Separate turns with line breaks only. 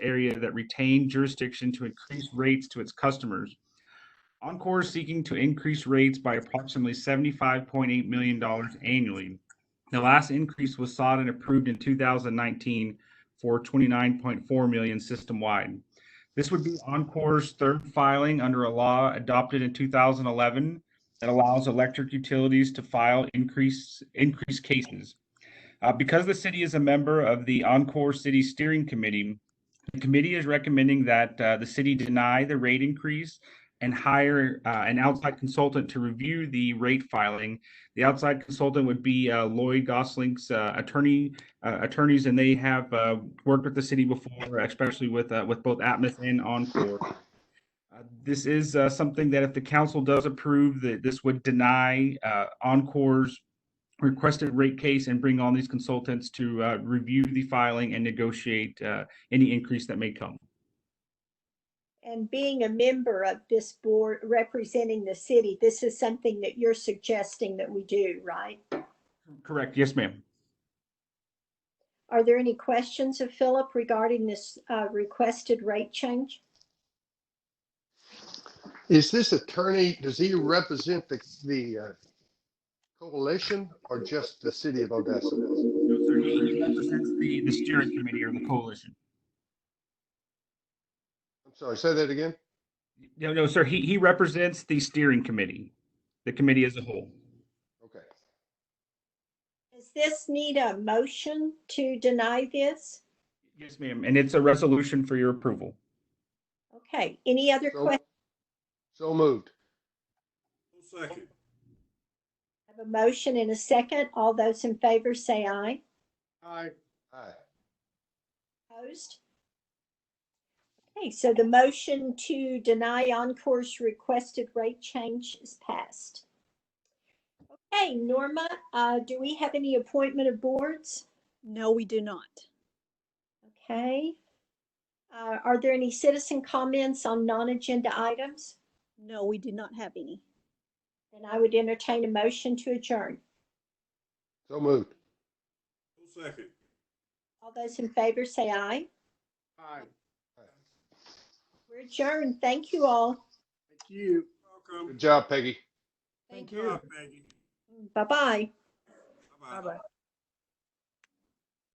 area that retain jurisdiction to increase rates to its customers. Encore is seeking to increase rates by approximately $75.8 million annually. The last increase was sought and approved in 2019 for 29.4 million system-wide. This would be Encore's third filing under a law adopted in 2011 that allows electric utilities to file increase, increased cases. Uh, because the city is a member of the Encore City Steering Committee, the committee is recommending that uh, the city deny the rate increase and hire uh, an outside consultant to review the rate filing. The outside consultant would be uh, Lloyd Gosling's uh, attorney uh, attorneys, and they have uh, worked with the city before, especially with uh, with both Atmos and Encore. Uh, This is uh, something that if the council does approve, that this would deny uh, Encore's requested rate case and bring on these consultants to uh, review the filing and negotiate uh, any increase that may come.
And being a member of this board representing the city, this is something that you're suggesting that we do, right?
Correct, yes, ma'am.
Are there any questions of Philip regarding this uh, requested rate change?
Is this attorney, does he represent the, the uh, coalition or just the city of Odessa?
No, sir, he represents the, the steering committee or the coalition.
I'm sorry, say that again?
No, no, sir, he, he represents the steering committee, the committee as a whole.
Okay.
Does this need a motion to deny this?
Yes, ma'am, and it's a resolution for your approval.
Okay, any other
So-
questions?
So moved.
Second.
Have a motion and a second. All those in favor say aye.
Aye. Aye.
Opposed? Okay, so the motion to deny Encore's requested rate change is passed. Okay, Norma, uh, do we have any appointment of boards?
No, we do not.
Okay. Uh, Are there any citizen comments on non-agenda items?
No, we do not have any.
Then I would entertain a motion to adjourn.
So moved.
Second.
All those in favor say aye.
Aye.
We're adjourned. Thank you all.
Thank you. Welcome.
Good job, Peggy.
Thank you. Peggy.
Bye-bye.
Bye-bye.